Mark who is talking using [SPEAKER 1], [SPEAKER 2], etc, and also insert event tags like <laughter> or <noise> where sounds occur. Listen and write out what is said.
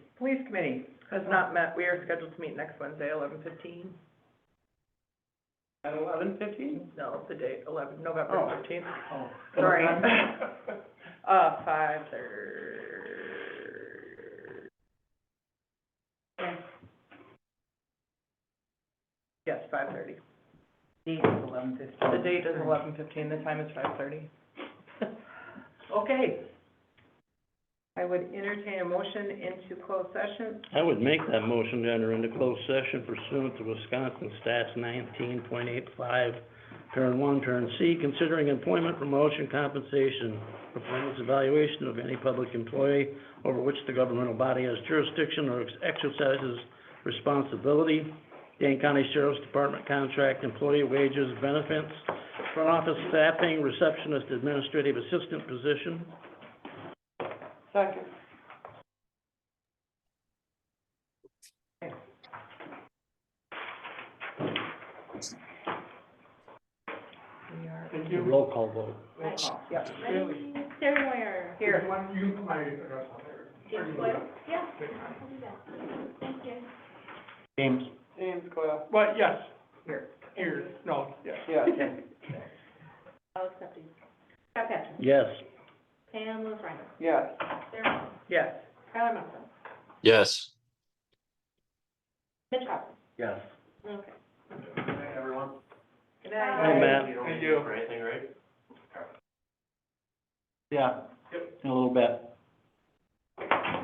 [SPEAKER 1] Police committee has not met, we are scheduled to meet next Wednesday, eleven fifteen.
[SPEAKER 2] At eleven fifteen?
[SPEAKER 1] No, it's the date, eleven, November
[SPEAKER 2] Oh.
[SPEAKER 1] fifteenth,
[SPEAKER 2] Oh.
[SPEAKER 1] Sorry.
[SPEAKER 2] Okay.
[SPEAKER 1] <laughs> uh, five thirty. Yes, five thirty.
[SPEAKER 3] Date is eleven fifteen.
[SPEAKER 1] <laughs> The date is eleven fifteen, the time is five thirty. <laughs> Okay. I would entertain a motion into closed session.
[SPEAKER 4] I would make that motion to enter into closed session pursuant to Wisconsin Stats nineteen point eight five, parent one, parent C, considering employment, promotion, compensation, performance evaluation of any public employee over which the governmental body has jurisdiction or ex- exercises responsibility, Dane County Sheriff's Department contract, employee wages, benefits, front office staffing, receptionist, administrative assistant position,
[SPEAKER 1] Second. We are,
[SPEAKER 2] Thank you.
[SPEAKER 4] roll call vote.
[SPEAKER 2] Roll call.
[SPEAKER 1] yep,
[SPEAKER 5] Sarah Moyer.
[SPEAKER 1] here.
[SPEAKER 2] One, you, my address on there.
[SPEAKER 5] James Boyle? Yeah, I'll do that. Thank you.
[SPEAKER 4] James.
[SPEAKER 2] James Coyle. Well, yes.
[SPEAKER 1] Here.
[SPEAKER 2] Here, no, yes.
[SPEAKER 1] Yeah.
[SPEAKER 5] I'll accept you. Scott Patrick.
[SPEAKER 4] Yes.
[SPEAKER 5] Pam Lozrino.
[SPEAKER 2] Yes.
[SPEAKER 5] Sarah Moyer.
[SPEAKER 1] Yes.
[SPEAKER 5] Tyler Munson.
[SPEAKER 6] Yes.
[SPEAKER 5] Mitch Hopper.
[SPEAKER 4] Yes.
[SPEAKER 5] Okay.
[SPEAKER 1] Good
[SPEAKER 5] night.
[SPEAKER 4] Hey, Matt.
[SPEAKER 2] Thank you.
[SPEAKER 4] Yeah. In a little bit.